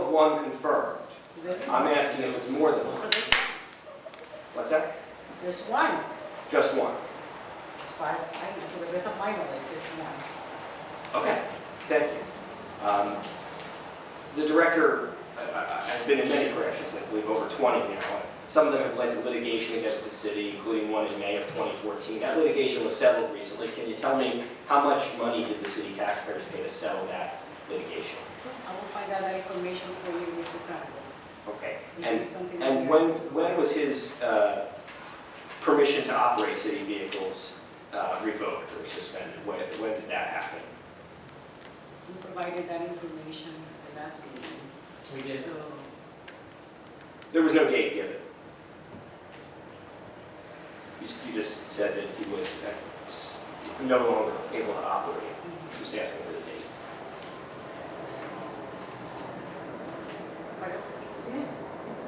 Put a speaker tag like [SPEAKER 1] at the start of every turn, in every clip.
[SPEAKER 1] one confirmed.
[SPEAKER 2] Really?
[SPEAKER 1] I'm asking if it's more than
[SPEAKER 2] So
[SPEAKER 1] one.
[SPEAKER 2] this,
[SPEAKER 1] What's that?
[SPEAKER 2] this one,
[SPEAKER 1] Just one.
[SPEAKER 2] as far as I know, there isn't mine, it's just one.
[SPEAKER 1] Okay, thank you. Um, The director uh, uh, has been in many corrections, I believe over 20 now. Some of them have led to litigation against the city, including one in May of 2014. That litigation was settled recently. Can you tell me how much money did the city taxpayers pay to settle that litigation?
[SPEAKER 2] I will find out that information for you, Mr. Conklin.
[SPEAKER 1] Okay.
[SPEAKER 2] Maybe
[SPEAKER 1] And
[SPEAKER 2] something
[SPEAKER 1] and
[SPEAKER 2] like
[SPEAKER 1] when
[SPEAKER 2] that.
[SPEAKER 1] when was his uh, permission to operate city vehicles uh, revoked or suspended? When when did that happen?
[SPEAKER 2] You provided that information at the last meeting,
[SPEAKER 3] We did,
[SPEAKER 2] so
[SPEAKER 1] There was no date given. You s- you just said that he was uh, s- no longer able to operate. Just asking for the date.
[SPEAKER 2] what else?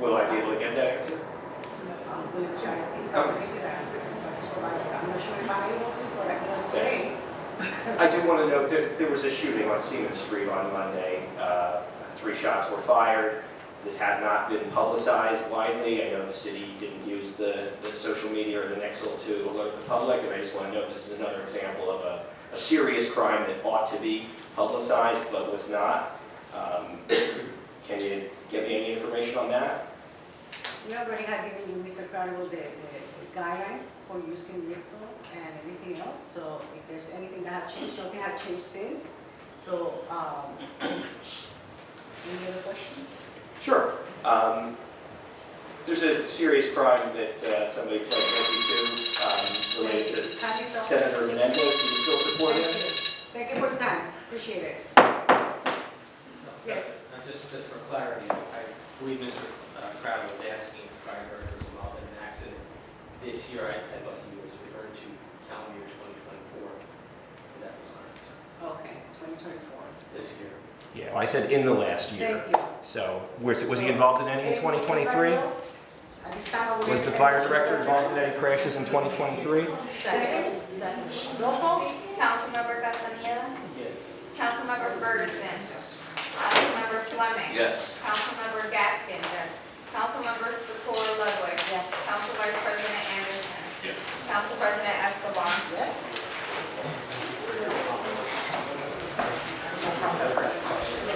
[SPEAKER 1] Will I be able to get that answer?
[SPEAKER 2] I'm going to try to see if I can get you the answer, so I- I'm not sure if I'm able to, but I can today.
[SPEAKER 1] I do want to note that there was a shooting on Siemens Street on Monday. Uh, Three shots were fired. This has not been publicized widely. I know the city didn't use the, the social media or the Nexel to alert the public, and I just want to note this is another example of a, a serious crime that ought to be publicized but was not. Um, Can you get me any information on that?
[SPEAKER 2] We already have given you, Mr. Carnival, the the guidelines for using Nixle and everything else, so if there's anything that have changed, nothing have changed since, so, um, any other questions?
[SPEAKER 1] Sure. Um, There's a serious crime that uh, somebody pled guilty to um, related to
[SPEAKER 2] Time is up.
[SPEAKER 1] Senator Menendez. Do you still support
[SPEAKER 2] Thank
[SPEAKER 1] him?
[SPEAKER 2] you. Thank you for your time, appreciate it. Yes.
[SPEAKER 3] Uh, Just, just for clarity, I believe Mr. Crowder was asking if Brian Bird was involved in an accident this year. I, I thought he was referring to calendar year 2024. That was my answer.
[SPEAKER 2] Okay, 2024.
[SPEAKER 3] This year.
[SPEAKER 1] Yeah, well, I said in the last
[SPEAKER 2] Thank you.
[SPEAKER 1] So was was he involved in any in 2023?
[SPEAKER 2] Anybody else? At this time, I would
[SPEAKER 1] Was the
[SPEAKER 2] entertain
[SPEAKER 1] fire
[SPEAKER 2] motion to
[SPEAKER 1] director
[SPEAKER 2] adjourn.
[SPEAKER 1] involved in any crashes in 2023?
[SPEAKER 4] Second.
[SPEAKER 2] Roll call?
[SPEAKER 4] Councilmember Castaneda.
[SPEAKER 3] Yes.
[SPEAKER 4] Councilmember Ferguson. Councilmember Fleming.
[SPEAKER 1] Yes.
[SPEAKER 4] Councilmember Gaskin. Yes. Councilmember Secor Ludwig. Yes. Council Vice President Anderson. Yes. Council President Escobar.
[SPEAKER 2] Yes.